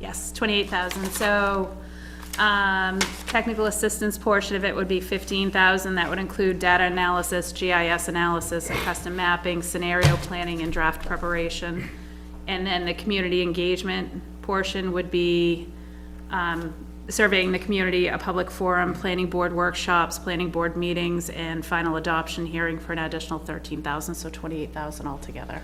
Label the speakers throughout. Speaker 1: yes, twenty-eight thousand, so, um, technical assistance portion of it would be fifteen thousand, that would include data analysis, GIS analysis, and custom mapping, scenario planning, and draft preparation. And then the community engagement portion would be, um, surveying the community, a public forum, planning board workshops, planning board meetings, and final adoption hearing for an additional thirteen thousand, so twenty-eight thousand altogether.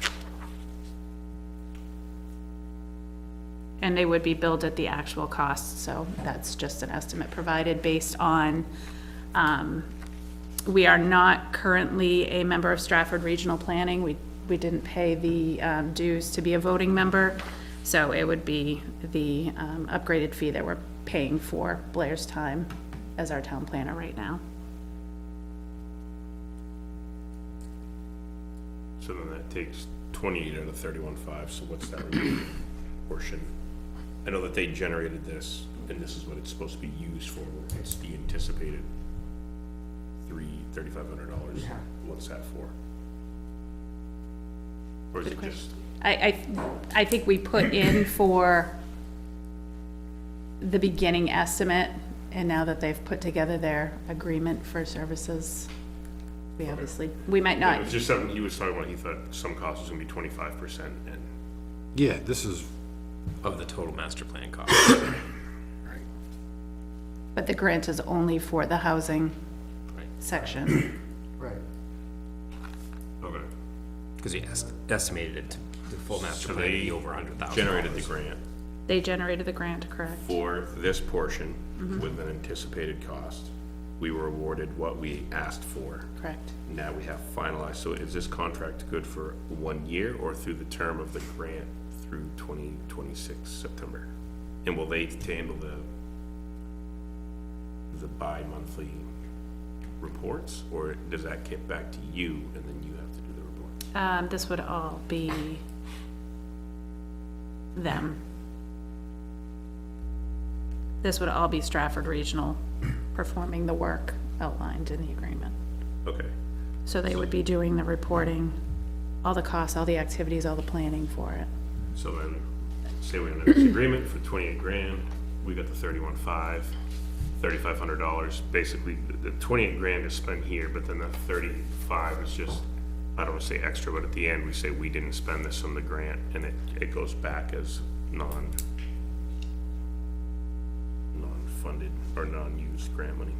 Speaker 1: And they would be billed at the actual cost, so that's just an estimate provided based on, um, we are not currently a member of Stratford Regional Planning. We, we didn't pay the um, dues to be a voting member, so it would be the um, upgraded fee that we're paying for Blair's time as our town planner right now.
Speaker 2: So then that takes twenty-eight out of thirty-one five, so what's that remaining portion? I know that they generated this, and this is what it's supposed to be used for, it's the anticipated three, thirty-five hundred dollars, what's that for? Or is it just,
Speaker 1: I, I, I think we put in for the beginning estimate, and now that they've put together their agreement for services, we obviously, we might
Speaker 2: it
Speaker 1: not,
Speaker 2: was just something he was talking about, he thought some cost was gonna be twenty-five percent, and
Speaker 3: Yeah, this is,
Speaker 4: of the total master plan cost.
Speaker 1: but the grant is only for the housing
Speaker 4: Right.
Speaker 1: section.
Speaker 2: okay,
Speaker 4: Because we est- estimated it, to- the full master
Speaker 2: So
Speaker 4: plan to
Speaker 2: they
Speaker 4: be over a hundred thousand.
Speaker 2: generated the grant
Speaker 1: They generated the grant, correct?
Speaker 2: for this portion with an anticipated cost. We were awarded what we asked for.
Speaker 1: Correct.
Speaker 2: now we have finalized, so is this contract good for one year or through the term of the grant through twenty twenty-six September? And will they handle the, the bi-monthly reports, or does that get back to you and then you have to do the report?
Speaker 1: Um, this would all be them. This would all be Stratford Regional performing the work outlined in the agreement.
Speaker 2: Okay,
Speaker 1: So they would be doing the reporting, all the costs, all the activities, all the planning for it.
Speaker 2: so then, say we're in a disagreement for twenty-eight grand, we got the thirty-one five, thirty-five hundred dollars, basically, the, the twenty-eight grand is spent here, but then the thirty-five is just, I don't wanna say extra, but at the end, we say we didn't spend this on the grant, and it, it goes back as non, non-funded or non-used grant money.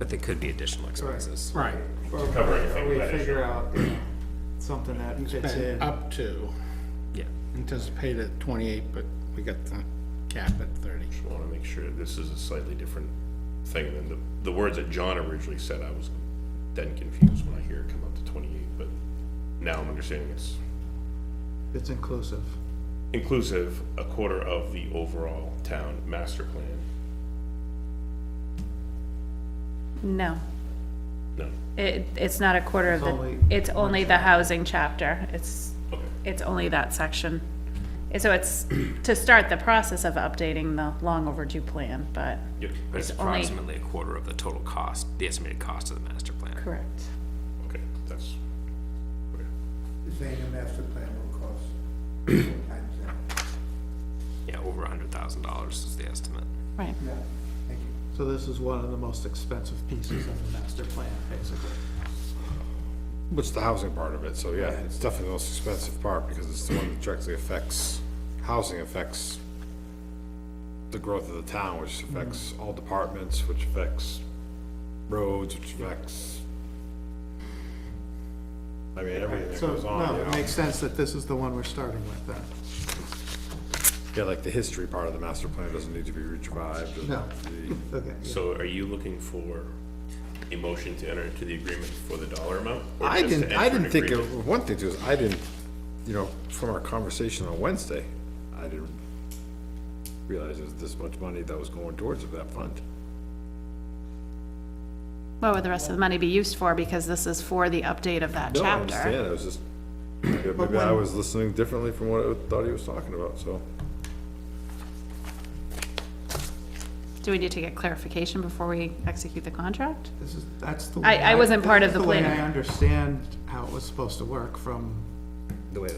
Speaker 4: But there could be additional expenses.
Speaker 5: Right.
Speaker 2: cover anything
Speaker 5: We
Speaker 2: with that
Speaker 5: figure out you know, something that fits
Speaker 6: spent
Speaker 5: in.
Speaker 6: up to,
Speaker 4: Yeah.
Speaker 6: anticipated at twenty-eight, but we got the cap at thirty.
Speaker 2: Just wanna make sure this is a slightly different thing than the, the words that John originally said, I was then confused when I hear it come up to twenty-eight, but now I'm understanding it's
Speaker 5: It's inclusive.
Speaker 2: inclusive a quarter of the overall town master plan.
Speaker 1: No,
Speaker 2: No,
Speaker 1: it, it's not a quarter of
Speaker 5: It's
Speaker 1: the,
Speaker 5: only
Speaker 1: it's only the housing chapter. It's,
Speaker 2: okay,
Speaker 1: it's only that section. And so it's to start the process of updating the long overdue plan, but,
Speaker 2: yep,
Speaker 4: But it's
Speaker 1: It's only-
Speaker 4: approximately a quarter of the total cost, the estimated cost of the master plan.
Speaker 1: correct.
Speaker 2: okay, that's, okay.
Speaker 7: saying a master plan will cost four times that.
Speaker 4: Yeah, over a hundred thousand dollars is the estimate.
Speaker 1: Right.
Speaker 7: Yeah, thank you.
Speaker 5: So this is one of the most expensive pieces of the master plan, basically.
Speaker 3: what's the housing part of it, so yeah, it's definitely the most expensive part, because it's the one that directly affects, housing affects the growth of the town, which affects all departments, which affects roads, which affects, I mean, everything that
Speaker 5: So,
Speaker 3: goes on,
Speaker 5: no,
Speaker 3: you
Speaker 5: it
Speaker 3: know?
Speaker 5: makes sense that this is the one we're starting with then.
Speaker 3: Yeah, like the history part of the master plan doesn't need to be revived. and
Speaker 5: No.
Speaker 3: the-
Speaker 5: Okay.
Speaker 2: So are you looking for a motion to enter into the agreement for the dollar amount? or
Speaker 3: I
Speaker 2: just to
Speaker 3: didn't,
Speaker 2: enter
Speaker 3: I
Speaker 2: an
Speaker 3: didn't think,
Speaker 2: agreement?
Speaker 3: of one thing too, is I didn't, you know, from our conversation on Wednesday, I didn't realize there was this much money that was going towards that fund.
Speaker 1: What would the rest of the money be used for? Because this is for the update of that
Speaker 3: No, I
Speaker 1: chapter.
Speaker 3: understand, I was just, maybe I was listening differently from what I thought he was talking about, so.
Speaker 1: Do we need to get clarification before we execute the contract?
Speaker 5: This is, that's the.
Speaker 1: I-
Speaker 5: way
Speaker 1: I wasn't part of
Speaker 5: that's
Speaker 1: the
Speaker 5: way
Speaker 1: planning.
Speaker 5: I understand how it was supposed to work from